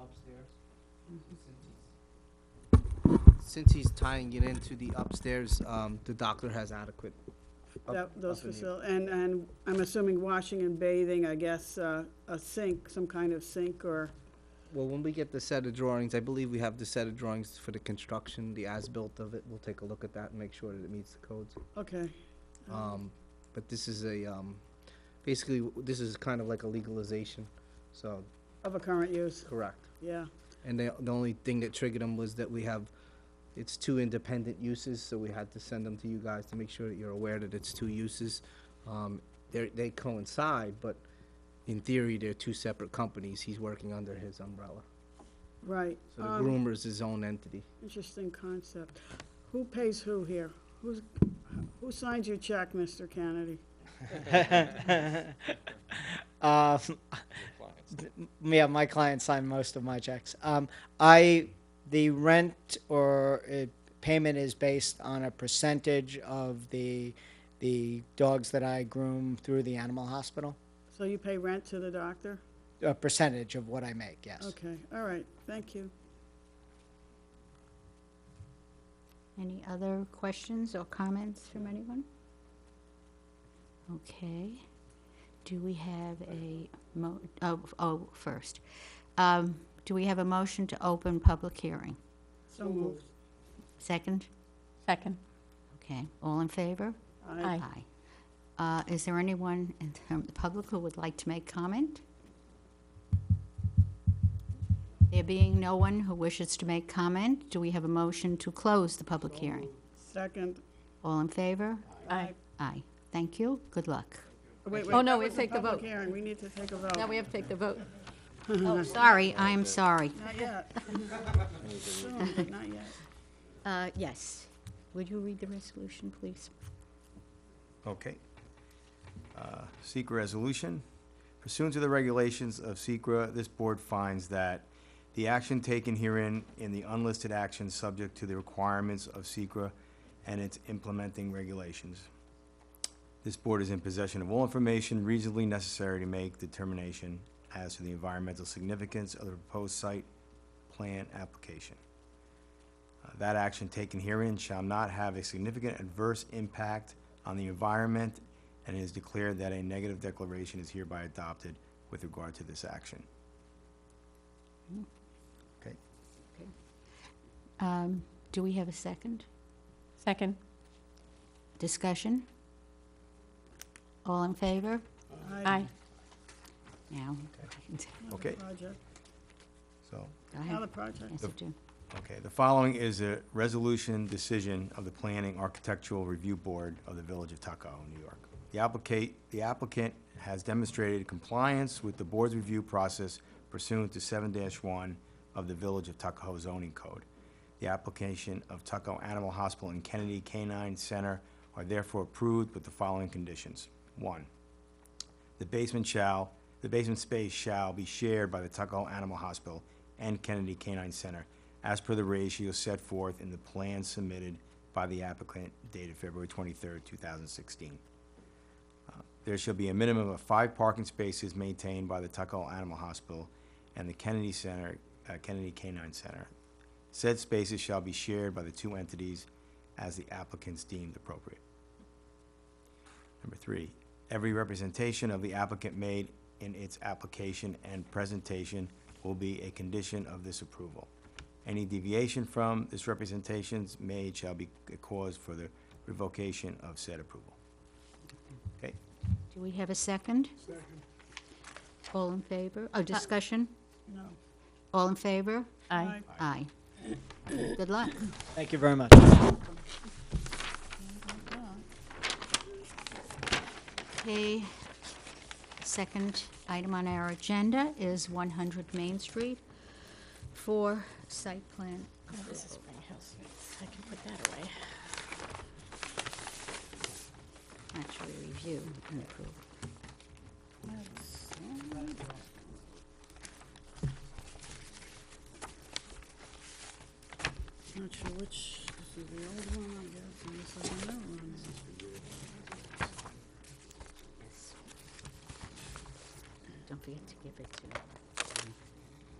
upstairs. Since he's tying it into the upstairs, um, the doctor has adequate. up- That, those up in the- facilities, and, and I'm assuming washing and bathing, I guess, uh, a sink, some kind of sink or, Well, when we get the set of drawings, I believe we have the set of drawings for the construction, the as-built of it. We'll take a look at that and make sure that it meets the codes. okay. Oh. Um, but this is a, um, basically, w- this is kind of like a legalization, so, Of a current use, correct. yeah, And the, the only thing that triggered them was that we have, it's two independent uses, so we had to send them to you guys to make sure that you're aware that it's two uses. Um, they're, they coincide, but in theory, they're two separate companies. He's working under his umbrella. right. So the Um, groomer is his own entity. Interesting concept. Who pays who here? Who's, who signs your check, Mr. Kennedy? Um, yeah, my clients sign most of my checks. Um, I the rent or uh, payment is based on a percentage of the the dogs that I groom through the animal hospital. So you pay rent to the doctor? A percentage of what I make, yes. Okay, all right, thank you. Any other questions or comments from anyone? Okay. Do we have a mo, oh, oh, first. Um, do we have a motion to open public hearing? So moved. Second? Second. Okay. All in favor? Aye. Uh, is there anyone in the- from the public who would like to make comment? There being no one who wishes to make comment, do we have a motion to close the public hearing? Second. All in favor? Aye. Aye. Thank you. Good luck. Wait, Oh, wait, no, that we was a take the public vote. hearing, we need to take a vote. Now we have to take the vote. Oh, sorry, I am sorry. Not yet. Soon, but Not yet. Uh, yes. Would you read the resolution, please? Okay. Uh, Secra resolution. Pursuant to the regulations of Secra, this board finds that the action taken herein in the unlisted action subject to the requirements of Secra and its implementing regulations. This board is in possession of all information reasonably necessary to make determination as to the environmental significance of the proposed site plan application. Uh, That action taken herein shall not have a significant adverse impact on the environment, and it is declared that a negative declaration is hereby adopted with regard to this action. Okay, Um, do we have a second? Second. Discussion? All in favor? Aye. Now. okay, Project, so, Go another ahead. project. Yes, you do. okay, the following is a resolution decision of the Planning Architectural Review Board of the Village of Tuckahoe, New York. The applicant, the applicant has demonstrated compliance with the board's review process pursuant to seven one of the Village of Tuckahoe zoning code. The application of Tuckahoe Animal Hospital and Kennedy Canine Center are therefore approved with the following conditions. One, the basement shall, the basement space shall be shared by the Tuckahoe Animal Hospital and Kennedy Canine Center as per the ratio set forth in the plan submitted by the applicant dated February twenty-third, two thousand sixteen. Uh, There shall be a minimum of five parking spaces maintained by the Tuckahoe Animal Hospital and the Kennedy Center, uh, Kennedy Canine Center. Said spaces shall be shared by the two entities as the applicants deemed appropriate. Number three, every representation of the applicant made in its application and presentation will be a condition of this approval. Any deviation from this representations made shall be a cause for the revocation of said approval. Okay? Do we have a second? Second. All in favor? Oh, discussion? No. All in favor? Aye. Aye. Good luck. Thank you very much. Okay. Second item on our agenda is 100 Main Street for site plan. This is my house. I can put that away. actually review and approve. Not sure which, this is the old one, I guess, and this is the new one. Don't forget to give it to